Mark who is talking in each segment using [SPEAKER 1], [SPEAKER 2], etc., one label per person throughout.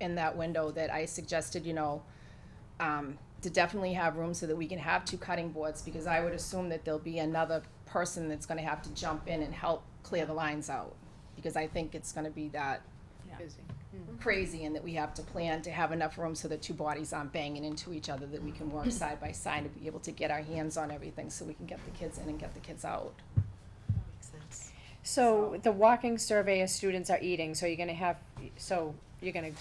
[SPEAKER 1] in that window that I suggested, you know, um, to definitely have room so that we can have two cutting boards, because I would assume that there'll be another person that's gonna have to jump in and help clear the lines out, because I think it's gonna be that
[SPEAKER 2] Busy.
[SPEAKER 1] crazy and that we have to plan to have enough room so the two bodies aren't banging into each other, that we can work side by side to be able to get our hands on everything, so we can get the kids in and get the kids out.
[SPEAKER 2] So the walking survey is students are eating, so you're gonna have, so you're gonna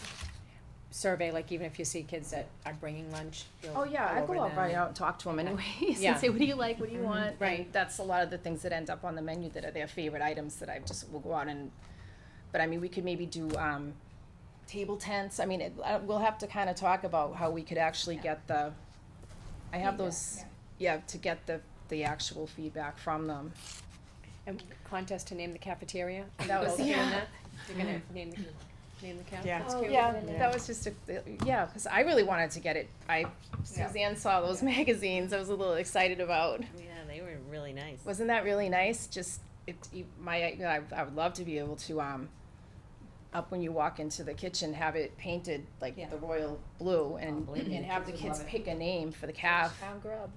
[SPEAKER 2] survey, like even if you see kids that are bringing lunch, you'll
[SPEAKER 1] Oh, yeah, I
[SPEAKER 2] over
[SPEAKER 1] go out
[SPEAKER 2] them.
[SPEAKER 1] right out and talk to them anyways,
[SPEAKER 2] Yeah.
[SPEAKER 1] and say, what do you like, what do you
[SPEAKER 2] Mm-hmm.
[SPEAKER 1] want? And
[SPEAKER 2] Right.
[SPEAKER 1] That's a lot of the things that end up on the menu that are their favorite items that I just will go out and, but I mean, we could maybe do, um, table tents, I mean, it, I, we'll have to kinda talk about how we could actually get the, I have those, yeah, to get the, the actual feedback from them.
[SPEAKER 2] And contest to name the cafeteria? Are you
[SPEAKER 1] That was-
[SPEAKER 2] both doing
[SPEAKER 1] yeah. Mm-hmm.
[SPEAKER 2] that? You're gonna name the, name the cafeteria?
[SPEAKER 3] Yeah.
[SPEAKER 2] That's
[SPEAKER 4] Oh,
[SPEAKER 2] cute.
[SPEAKER 1] Yeah,
[SPEAKER 4] Yeah.
[SPEAKER 1] that was just a, uh, yeah, cause I really wanted to get it, I, Suzanne saw those magazines, I was a little excited about.
[SPEAKER 5] Yeah, they were really nice.
[SPEAKER 1] Wasn't that really nice? Just it, you- my, I, I would love to be able to um, up when you walk into the kitchen, have it painted like
[SPEAKER 4] Yeah.
[SPEAKER 1] the royal blue, and
[SPEAKER 5] believe
[SPEAKER 1] and have the
[SPEAKER 4] Kids would
[SPEAKER 1] kids
[SPEAKER 4] love it.
[SPEAKER 1] pick a name for the calf,
[SPEAKER 4] Town grub.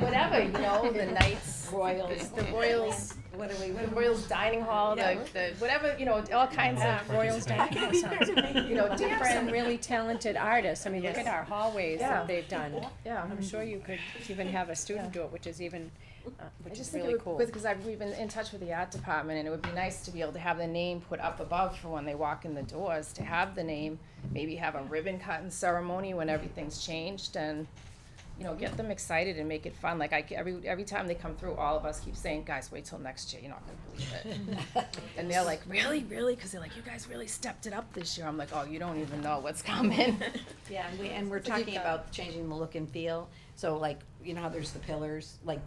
[SPEAKER 1] whatever you know, the knights,
[SPEAKER 4] Royals.
[SPEAKER 1] the royals,
[SPEAKER 4] What are we,
[SPEAKER 1] the royals dining hall, the,
[SPEAKER 4] Yeah.
[SPEAKER 1] the whatever you know, all kinds
[SPEAKER 6] Yeah.
[SPEAKER 1] of
[SPEAKER 2] Royals Dining Hall sounds amazing.
[SPEAKER 1] you know
[SPEAKER 2] We have some
[SPEAKER 1] different
[SPEAKER 2] really talented artists, I mean, look
[SPEAKER 1] Yes.
[SPEAKER 2] at our hallways
[SPEAKER 1] Yeah.
[SPEAKER 2] that they've done.
[SPEAKER 1] yeah.
[SPEAKER 2] I'm sure you could even have a student do it, which is even, uh,
[SPEAKER 1] I
[SPEAKER 2] which
[SPEAKER 1] just
[SPEAKER 2] is
[SPEAKER 1] think
[SPEAKER 2] really
[SPEAKER 1] it
[SPEAKER 2] cool.
[SPEAKER 1] would, because I've, we've been in touch with the art department, and it would be nice to be able to have the name put up above for when they walk in the doors, to have the name, maybe have a ribbon cutting ceremony when everything's changed, and, you know, get them excited and make it fun, like I, ca- every, every time they come through, all of us keep saying, guys, wait till next year, you're not gonna believe it. And they're like, really, really, because they're like, you guys really stepped it up this year, I'm like, oh, you don't even know what's coming.
[SPEAKER 4] Yeah, and we, and we're
[SPEAKER 1] So you've
[SPEAKER 4] talking
[SPEAKER 1] got-
[SPEAKER 4] about changing the look and feel, so like, you know how there's the pillars, like,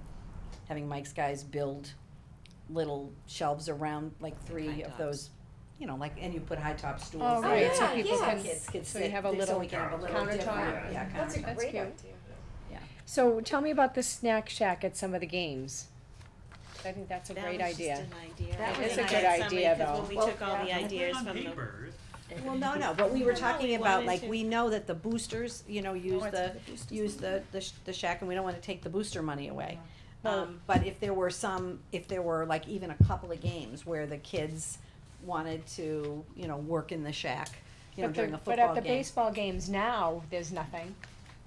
[SPEAKER 4] having Mike's guys build little shelves around, like, three of
[SPEAKER 5] tops.
[SPEAKER 4] those, you know, like, and you put high top stools.
[SPEAKER 2] Oh,
[SPEAKER 4] there.
[SPEAKER 2] right,
[SPEAKER 4] So
[SPEAKER 2] so
[SPEAKER 4] kids
[SPEAKER 2] people
[SPEAKER 4] can-
[SPEAKER 2] can,
[SPEAKER 4] kids can
[SPEAKER 2] so you
[SPEAKER 4] sit-
[SPEAKER 2] have a
[SPEAKER 4] so
[SPEAKER 2] little
[SPEAKER 4] we can have a little
[SPEAKER 2] countertop.
[SPEAKER 4] different- Yeah,
[SPEAKER 2] That's
[SPEAKER 4] countertop.
[SPEAKER 2] That's cute.
[SPEAKER 4] Yeah.
[SPEAKER 2] So tell me about the snack shack at some of the games. I think that's a
[SPEAKER 5] That
[SPEAKER 2] great
[SPEAKER 5] was just
[SPEAKER 2] idea.
[SPEAKER 5] an idea.
[SPEAKER 4] That
[SPEAKER 5] I
[SPEAKER 4] was
[SPEAKER 5] think
[SPEAKER 4] a
[SPEAKER 5] I
[SPEAKER 4] good
[SPEAKER 5] had
[SPEAKER 2] idea,
[SPEAKER 5] somebody- 'cause
[SPEAKER 2] though.
[SPEAKER 5] When
[SPEAKER 4] Well,
[SPEAKER 5] we took all the
[SPEAKER 4] yeah.
[SPEAKER 5] ideas
[SPEAKER 6] on
[SPEAKER 5] from the.
[SPEAKER 6] paper,
[SPEAKER 4] Well, no, no, but we were
[SPEAKER 5] No,
[SPEAKER 4] talking
[SPEAKER 5] we
[SPEAKER 4] about,
[SPEAKER 5] wanted
[SPEAKER 4] like,
[SPEAKER 5] to-
[SPEAKER 4] we know that the boosters, you
[SPEAKER 2] Oh,
[SPEAKER 4] know, use
[SPEAKER 1] it's
[SPEAKER 4] the,
[SPEAKER 1] for the boosters.
[SPEAKER 4] use the, the sh- the shack, and we don't wanna take the booster money away. Um, but if there were some, if there were like even a couple of games where the kids wanted to, you know, work in the shack, you know,
[SPEAKER 2] But
[SPEAKER 4] during
[SPEAKER 2] the,
[SPEAKER 4] a
[SPEAKER 2] but
[SPEAKER 4] football
[SPEAKER 2] at the
[SPEAKER 4] game.
[SPEAKER 2] baseball games now, there's nothing,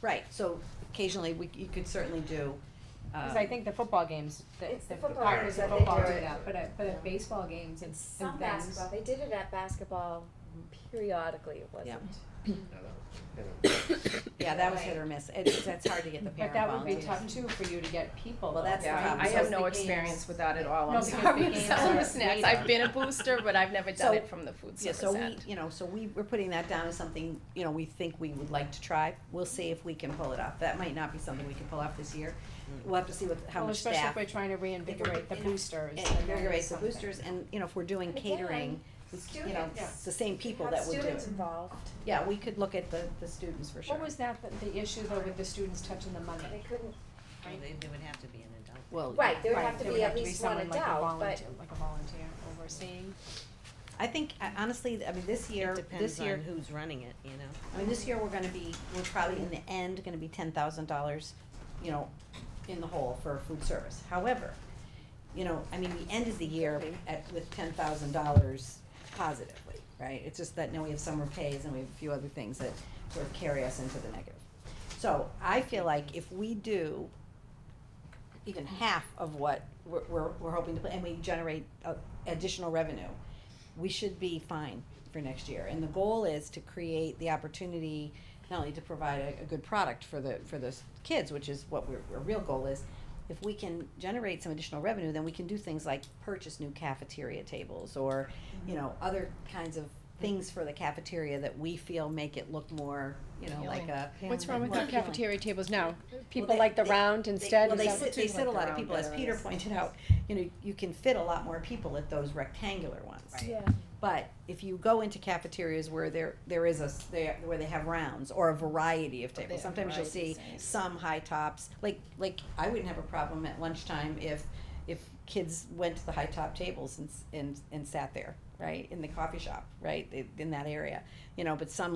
[SPEAKER 4] Right, so occasionally we, you could certainly do,
[SPEAKER 2] cause
[SPEAKER 4] uh,
[SPEAKER 2] I think the football games, the,
[SPEAKER 3] It's
[SPEAKER 2] the
[SPEAKER 3] the football
[SPEAKER 2] partners
[SPEAKER 3] games
[SPEAKER 2] of
[SPEAKER 3] that they
[SPEAKER 2] football
[SPEAKER 3] do
[SPEAKER 2] do
[SPEAKER 3] it.
[SPEAKER 2] that, but at, but at baseball games and, and things.
[SPEAKER 3] Some basketball, they did it at basketball periodically, it wasn't.
[SPEAKER 4] yeah, that was
[SPEAKER 3] Right.
[SPEAKER 4] hit or miss, it's, that's hard to get the
[SPEAKER 2] But
[SPEAKER 4] parent
[SPEAKER 2] that would be
[SPEAKER 4] volunteers.
[SPEAKER 2] tough too for you to get people.
[SPEAKER 4] Well,
[SPEAKER 2] though,
[SPEAKER 4] that's the
[SPEAKER 2] right?
[SPEAKER 1] Yeah,
[SPEAKER 4] problem.
[SPEAKER 1] I
[SPEAKER 4] So
[SPEAKER 1] have
[SPEAKER 4] it's
[SPEAKER 1] no
[SPEAKER 4] the
[SPEAKER 1] experience with that at all,
[SPEAKER 2] No,
[SPEAKER 1] I'm
[SPEAKER 2] because
[SPEAKER 1] sorry,
[SPEAKER 2] the
[SPEAKER 1] I'm
[SPEAKER 2] games
[SPEAKER 1] selling
[SPEAKER 2] are
[SPEAKER 1] the snacks,
[SPEAKER 2] made
[SPEAKER 1] I've been a booster, but I've never
[SPEAKER 4] So-
[SPEAKER 1] done it from the food
[SPEAKER 4] Yeah,
[SPEAKER 1] service
[SPEAKER 4] so
[SPEAKER 1] end.
[SPEAKER 4] we, you know, so we, we're putting that down as something, you know, we think we would like to try, we'll see if we can pull it off, that might not be something we can pull off this year. We'll have to see what, how
[SPEAKER 2] Well,
[SPEAKER 4] much
[SPEAKER 2] especially
[SPEAKER 4] staff.
[SPEAKER 2] if we're trying to reinvigorate the
[SPEAKER 4] you know,
[SPEAKER 2] boosters.
[SPEAKER 4] and
[SPEAKER 2] and
[SPEAKER 4] invigorate the
[SPEAKER 2] something.
[SPEAKER 4] boosters, and, you know, if we're doing
[SPEAKER 3] And
[SPEAKER 4] catering,
[SPEAKER 3] again,
[SPEAKER 4] we- you know,
[SPEAKER 3] students.
[SPEAKER 4] it's the same people
[SPEAKER 3] Have
[SPEAKER 4] that would do
[SPEAKER 3] students
[SPEAKER 4] it.
[SPEAKER 3] involved,
[SPEAKER 4] Yeah, we could look at the, the students for sure.
[SPEAKER 2] What was that, the, the issue though with the students touching the money?
[SPEAKER 3] they couldn't,
[SPEAKER 5] Well, They, they would have to be an adult.
[SPEAKER 4] Well,
[SPEAKER 3] right, there would
[SPEAKER 2] Right,
[SPEAKER 3] have to
[SPEAKER 2] there
[SPEAKER 3] be
[SPEAKER 2] would
[SPEAKER 3] at least one
[SPEAKER 2] someone like a
[SPEAKER 3] adult, but
[SPEAKER 2] volunteer, like a volunteer overseeing.
[SPEAKER 4] I think, I- honestly, I mean, this
[SPEAKER 5] It
[SPEAKER 4] year, this
[SPEAKER 5] depends on
[SPEAKER 4] year,
[SPEAKER 5] who's running it, you know?
[SPEAKER 4] I mean, this year, we're gonna be, we're probably in the end, gonna be ten thousand dollars, you know, in the hole for food service. However, you know, I mean, we ended the year at, with ten thousand dollars positively, right? It's just that now we have summer pays and we have a few other things that sort of carry us into the negative. So I feel like if we do even half of what we're, we're, we're hoping to, put, and we generate uh, additional revenue, we should be fine for next year. And the goal is to create the opportunity not only to provide a, a good product for the, for those kids, which is what we're, our real goal is. If we can generate some additional revenue, then we can do things like purchase new cafeteria tables or, you know, other kinds of things for the cafeteria that we feel make it look more, you know, like a.
[SPEAKER 2] What's wrong with
[SPEAKER 4] more
[SPEAKER 2] the
[SPEAKER 4] appealing.
[SPEAKER 2] cafeteria tables now? People
[SPEAKER 4] Well, they-
[SPEAKER 2] like the
[SPEAKER 4] they-
[SPEAKER 2] round instead?
[SPEAKER 4] Well,
[SPEAKER 2] Is
[SPEAKER 4] they
[SPEAKER 2] that-
[SPEAKER 4] sit, they
[SPEAKER 1] Like
[SPEAKER 4] sit a lot of
[SPEAKER 1] around
[SPEAKER 4] people, as
[SPEAKER 1] better
[SPEAKER 4] Peter
[SPEAKER 1] is-
[SPEAKER 4] pointed out, you know, you can fit a lot more people at those rectangular ones.
[SPEAKER 3] yeah,
[SPEAKER 4] But if you go into cafeterias where there, there is a, s- there, where they have rounds or a variety of
[SPEAKER 1] they
[SPEAKER 4] tables,
[SPEAKER 1] have
[SPEAKER 4] sometimes you'll
[SPEAKER 1] variety,
[SPEAKER 4] see
[SPEAKER 1] same.
[SPEAKER 4] some high tops, like, like, I wouldn't have a problem at lunchtime if, if kids went to the high top tables and, s- and, and sat there, right, in the coffee shop, right, i- in that area, you know, but some